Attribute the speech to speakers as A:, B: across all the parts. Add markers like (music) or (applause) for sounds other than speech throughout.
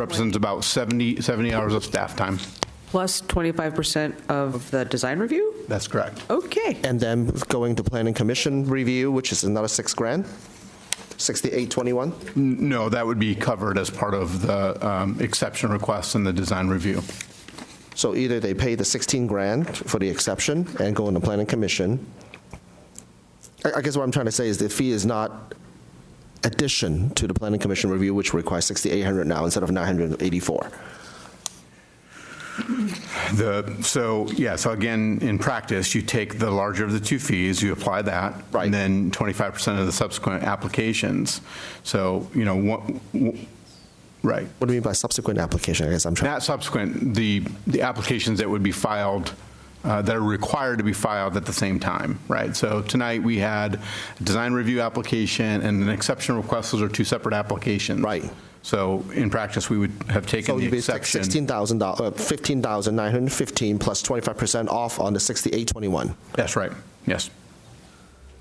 A: represents about 70, 70 hours of staff time.
B: plus 25% of the design review?
A: That's correct.
B: Okay.
C: And then going to planning commission review, which is another six grand, 6821.
A: N- No, that would be covered as part of the um, exception request and the design review.
C: So either they pay the 16 grand for the exception and go into planning commission. I I guess what I'm trying to say is the fee is not addition to the planning commission review, which requires 6,800 now instead of 984.
A: The, so, yeah, so again, in practice, you take the larger of the two fees, you apply that.
C: Right.
A: And then 25% of the subsequent applications. So, you know, one- w- right.
C: What do you mean by subsequent application? I guess I'm trying,
A: Not subsequent, the, the applications that would be filed, uh, that are required to be filed at the same time, right? So tonight, we had a design review application and an exception request, those are two separate applications.
C: Right.
A: So in practice, we would have taken
C: so
A: the
C: you'd be like
A: exception.
C: 16,000, uh, 15,915 plus 25% off on the 6,821.
A: That's right, yes.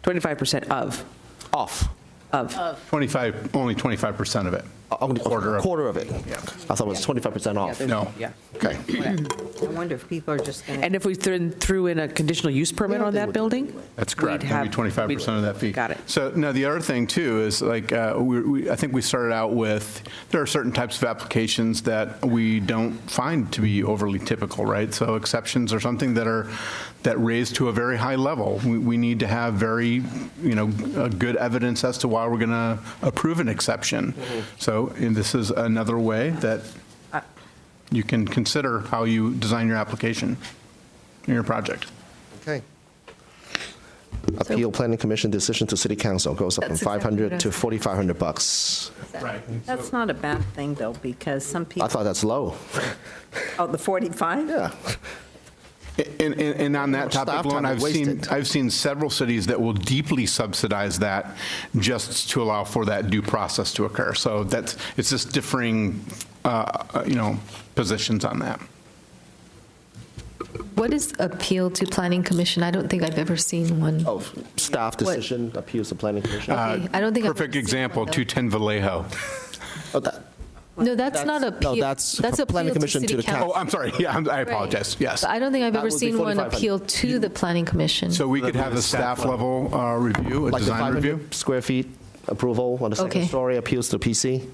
B: 25% of,
C: Off.
B: of.
A: 25, only 25% of it.
C: Only-
A: Quarter of-
C: Quarter of it.
A: Yeah.
C: I thought it was 25% off.
A: No.
B: Yeah.
C: Okay.
D: I wonder if people are just going to.
B: And if we threw threw in a conditional use permit on that building?
A: That's correct.
B: we'd
A: That'd be
B: have-
A: 25% of that fee.
B: Got it.
A: So, no, the other thing, too, is like, uh, we- we- I think we started out with, there are certain types of applications that we don't find to be overly typical, right? So exceptions are something that are, that raise to a very high level. We- We need to have very, you know, uh, good evidence as to why we're going to approve an exception.
B: Mm-hmm.
A: So, and this is another way that
B: Uh,
A: you can consider how you design your application, your project.
C: Okay. Appeal Planning Commission decision to City Council goes up from
D: That's exactly
C: 500 to
D: what I-
C: 4,500 bucks.
A: Right.
D: That's not a bad thing, though, because some
C: I
D: people,
C: thought that's low.
D: oh, the 45?
C: Yeah.
A: And, and, and on that
C: Staff
A: topic
C: time
A: alone,
C: is
A: I've seen,
C: wasted.
A: I've seen several cities that will deeply subsidize that just to allow for that due process to occur. So that's, it's just differing, uh, you know, positions on that.
E: What is appeal to planning commission? I don't think I've ever seen one.
C: (laughs) Oh, staff decision appeals to Planning Commission.
A: Uh,
E: Okay, I don't think. I've ever
A: Perfect
E: seen
A: example,
E: one, though.
A: 210 Vallejo.
C: Oh, that-
E: No, that's not
C: no,
E: appeal.
C: that's planning
E: appeal
C: commission to
E: city
C: the coun-
A: Oh, I'm sorry, (laughs) yeah, I'm- I
E: Right.
A: apologize, yes.
E: But I don't think I've
C: That
E: ever
C: would be
E: seen one
C: 4,500.
E: appeal to the planning commission.
A: So we could have a staff level uh, review, a
C: Like the
A: design review?
C: 500 square feet approval on the second
E: Okay.
C: story appeals to PC.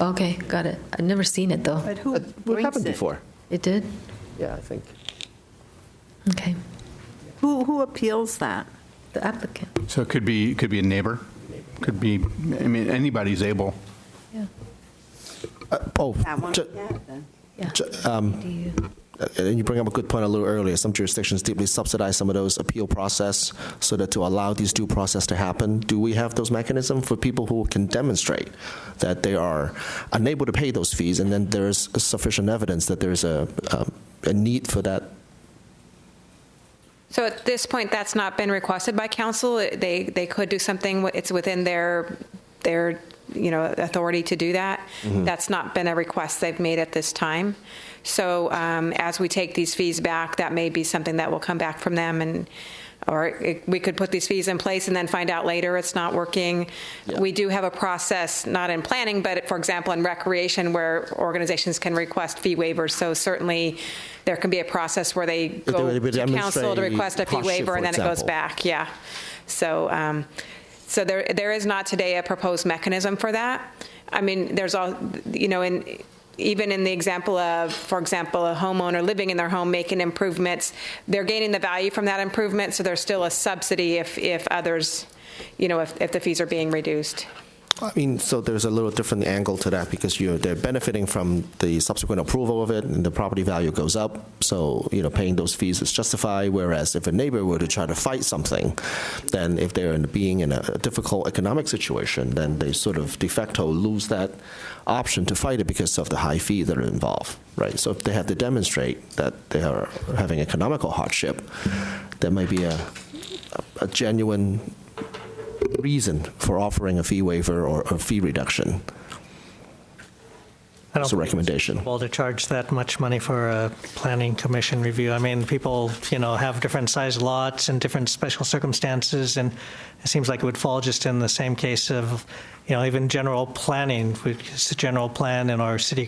E: Okay, got it. I've never seen it, though.
D: But who
C: That- What
D: brings
C: happened
D: it?
C: before?
E: It did?
C: Yeah, I think.
E: Okay.
D: Who, who appeals that?
E: The applicant.
A: So it could be, it could be a neighbor, could be, I mean, anybody's able.
E: Yeah.
A: Uh,
C: Oh,
D: That one?
C: ju-
D: Yeah, then.
E: Yeah. Do you-
C: uh, and you bring up a good point a little earlier. Some jurisdictions deeply subsidize some of those appeal process so that to allow these due process to happen. Do we have those mechanisms for people who can demonstrate that they are unable to pay those fees and then there is sufficient evidence that there's a, um, a need for that
F: So at this point, that's not been requested by council. They, they could do something, it's within their, their, you know, authority to do that. That's not been a request they've made at this time. So um, as we take these fees back, that may be something that will come back from them and, or it- we could put these fees in place and then find out later it's not working. We do have a process, not in planning, but for example, in recreation where organizations can request fee waivers. So certainly there can be a process where they
C: But they
F: go
C: would be
F: to council to
C: demonstrating
F: request a fee
C: hardship,
F: waiver, and
C: for
F: then it goes
C: example.
F: back, yeah. So, um, so there, there is not today a proposed mechanism for that. I mean, there's all, you know, in, even in the example of, for example, a homeowner living in their home making improvements, they're gaining the value from that improvement, so there's still a subsidy if, if others, you know, if, if the fees are being reduced.
C: I mean, so there's a little different angle to that because you're, they're benefiting from the subsequent approval of it and the property value goes up. So, you know, paying those fees is justified. Whereas if a neighbor were to try to fight something, then if they're in, being in a difficult economic situation, then they sort of de facto lose that option to fight it because of the high fee that are involved, right? So if they have to demonstrate that they are having economical hardship, there might be a, a genuine reason for offering a fee waiver or a fee reduction.
G: I don't
C: It's a
G: think
C: recommendation.
G: reasonable to charge that much money for a planning commission review. I mean, people, you know, have different size lots and different special circumstances, and it seems like it would fall just in the same case of, you know, even general planning, which is the general plan in our city